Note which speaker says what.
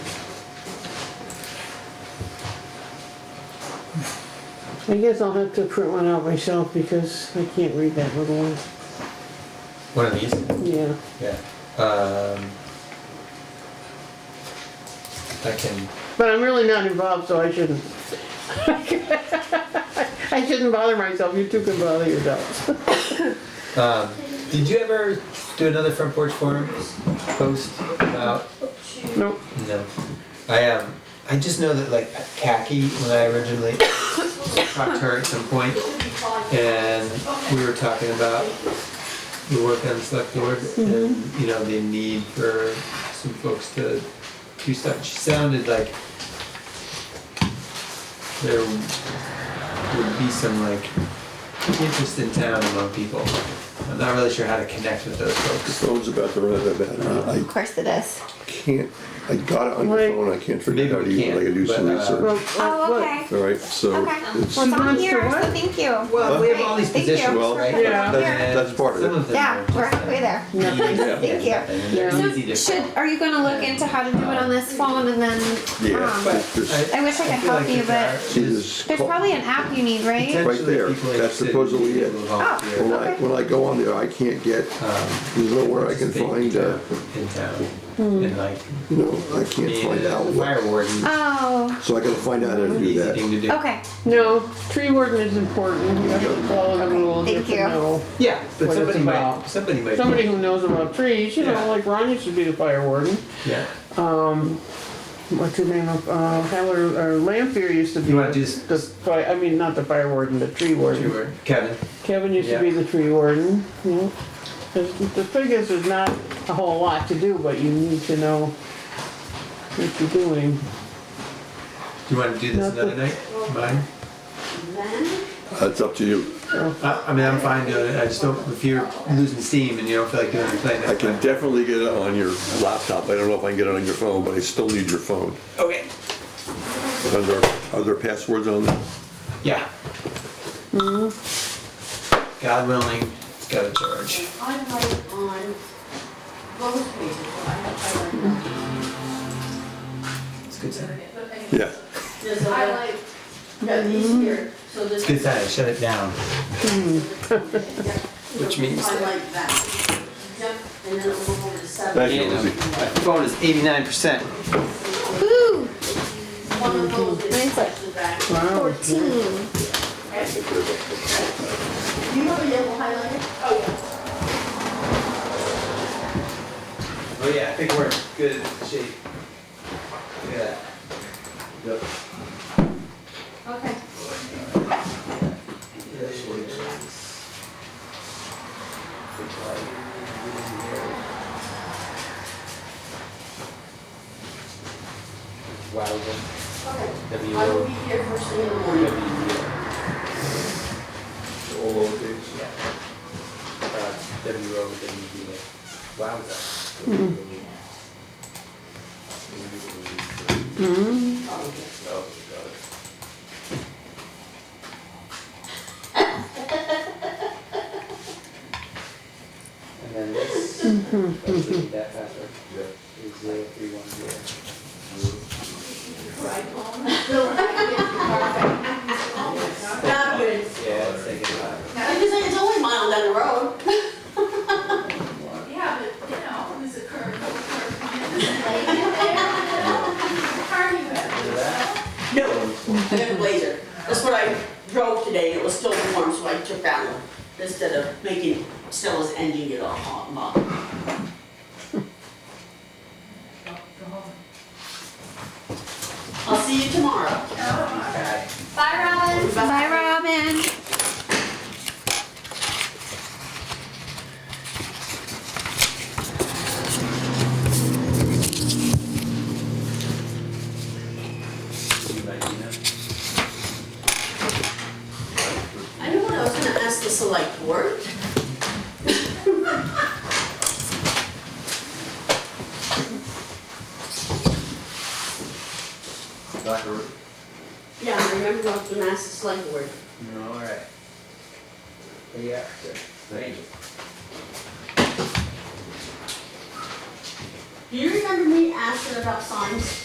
Speaker 1: I guess I'll have to print one out myself because I can't read that little one.
Speaker 2: One of these?
Speaker 1: Yeah,
Speaker 2: Yeah. Um, I can,
Speaker 1: but I'm really not involved, so I shouldn't. I shouldn't bother myself, you two can bother yourselves.
Speaker 2: um, did you ever do another front porch forum post about,
Speaker 1: No,
Speaker 2: no. I, um, I just know that like Kaki, when I originally talked to her at some point, and we were talking about the work on the select board
Speaker 3: Mm-hmm.
Speaker 2: and, you know, the need for some folks to do stuff. She sounded like there would be some like interest in town among people. I'm not really sure how to connect with those folks.
Speaker 4: Phone's about to run out of battery. I
Speaker 2: Uh-huh.
Speaker 3: Of course it is.
Speaker 4: can't, I got it on your
Speaker 1: Wait.
Speaker 4: phone, I can't
Speaker 2: Maybe
Speaker 4: figure it out
Speaker 2: we
Speaker 4: even, I
Speaker 2: can't,
Speaker 4: gotta do some
Speaker 2: but, uh,
Speaker 1: well,
Speaker 4: research.
Speaker 1: uh,
Speaker 3: Oh,
Speaker 1: look,
Speaker 3: okay.
Speaker 4: All right, so
Speaker 3: Okay. Um,
Speaker 4: it's,
Speaker 3: Well, it's on
Speaker 1: Wants to
Speaker 3: here,
Speaker 1: what?
Speaker 3: so thank you.
Speaker 2: Well, we have
Speaker 3: Great,
Speaker 2: all these
Speaker 3: thank
Speaker 2: positions,
Speaker 3: you.
Speaker 2: right?
Speaker 1: Yeah.
Speaker 4: That's- that's part of it.
Speaker 2: Some them
Speaker 3: Yeah,
Speaker 2: are
Speaker 3: we're
Speaker 2: just, uh,
Speaker 3: halfway there.
Speaker 2: Yeah.
Speaker 3: Thank you.
Speaker 1: Yeah.
Speaker 2: They're easy to-
Speaker 3: So should, are you gonna look into how to do it on this phone and then,
Speaker 4: yeah,
Speaker 3: um,
Speaker 4: it's just,
Speaker 3: I wish I could
Speaker 2: feel
Speaker 3: help
Speaker 2: like
Speaker 3: you,
Speaker 2: if there
Speaker 3: but
Speaker 4: she
Speaker 2: is
Speaker 4: just
Speaker 3: there's
Speaker 4: call-
Speaker 3: probably an app you need, right?
Speaker 2: potentially
Speaker 4: there.
Speaker 2: people
Speaker 4: That's
Speaker 2: interested in
Speaker 4: supposedly
Speaker 2: being
Speaker 4: it.
Speaker 2: able to
Speaker 1: Ah.
Speaker 2: volunteer,
Speaker 4: when I, when I go on there, I can't get,
Speaker 2: um,
Speaker 4: there's nowhere I can
Speaker 2: participate
Speaker 4: find, uh,
Speaker 2: In town,
Speaker 1: Hmm.
Speaker 2: and like,
Speaker 4: you know, I can't
Speaker 2: being
Speaker 4: find out
Speaker 2: a
Speaker 4: what,
Speaker 2: fire warden,
Speaker 1: Ah.
Speaker 3: Oh,
Speaker 4: so I gotta find out how to do
Speaker 2: easy
Speaker 4: that.
Speaker 2: thing to do.
Speaker 3: okay.
Speaker 1: no, tree warden is important, you have to follow the rules, you have
Speaker 3: Thank
Speaker 1: to
Speaker 3: you.
Speaker 1: know.
Speaker 2: Yeah, but
Speaker 1: What
Speaker 2: somebody
Speaker 1: it's
Speaker 2: might,
Speaker 1: about.
Speaker 2: somebody might.
Speaker 1: Somebody who knows about trees, you
Speaker 2: Yeah.
Speaker 1: know, like Ron used to be the fire warden.
Speaker 2: Yeah,
Speaker 1: What's his name, uh, Heller, or Lampier used to be.
Speaker 2: You wanna do
Speaker 1: the-
Speaker 2: s-
Speaker 1: The, fi- I mean, not the fire warden, the tree warden.
Speaker 2: you were, Kevin,
Speaker 1: Kevin used to be the tree warden, you know. There's- The figures is not a whole lot to do, but you need to know what you're doing.
Speaker 2: do you wanna do this another night, mine?
Speaker 4: That's up to you.
Speaker 2: I, I mean, I'm fine doing it, I just don't, if you're losing steam and you don't feel like doing it, play
Speaker 4: I
Speaker 2: next
Speaker 4: can
Speaker 2: time.
Speaker 4: definitely get it on your laptop, I don't know if I can get it on your phone, but I still need your phone.
Speaker 2: Okay.
Speaker 4: Are there, are there passwords on that?
Speaker 2: Yeah.
Speaker 1: Hmm.
Speaker 2: God willing, it's gotta charge.
Speaker 5: I write on both pages, I have, I write
Speaker 2: It's a good sign.
Speaker 4: Yeah,
Speaker 5: There's a, I got these here, so
Speaker 2: It's
Speaker 5: this.
Speaker 2: a good sign, shut it down.
Speaker 5: Which
Speaker 2: means
Speaker 5: I
Speaker 2: that-
Speaker 5: like that. Yep, and then it'll go over to seven.
Speaker 4: Thank you, Lizzie.
Speaker 2: My phone is eighty-nine percent.
Speaker 3: Woo,
Speaker 5: One of those
Speaker 3: Mine's
Speaker 5: is
Speaker 3: like-
Speaker 5: the back.
Speaker 1: Wow.
Speaker 3: fourteen.
Speaker 5: Do you have a yellow highlighter?
Speaker 2: Oh yeah, I think we're in good shape. Look at that.
Speaker 5: Okay.
Speaker 2: Wow.
Speaker 5: Okay.
Speaker 2: W
Speaker 5: I will
Speaker 2: O
Speaker 5: be here first thing in the
Speaker 2: W.
Speaker 5: morning.
Speaker 4: All lowercase?
Speaker 2: Yeah. Uh, W O W D A. Wowza.
Speaker 5: Oh, okay.
Speaker 2: Oh, And then this, that's the- that password. Is zero three one zero.
Speaker 5: Not good.
Speaker 2: Yeah, it's like a lot.
Speaker 5: I'm just saying, it's only a mile down the road.
Speaker 6: Yeah, but, you know, it was a curve, no curve. Party with.
Speaker 5: No, I got a blazer. That's what I drove today, and it was still warm, so I took that one instead of making Stella's engine get all hot and bothered. I'll see you tomorrow.
Speaker 3: Bye, Robin. Bye, Robin.
Speaker 5: I know what I was gonna ask the select board.
Speaker 2: Doctor,
Speaker 5: Yeah, I remember I was gonna ask the select board.
Speaker 2: no, all right. Yeah, good. Thank you.
Speaker 5: Do you remember me asking about signs?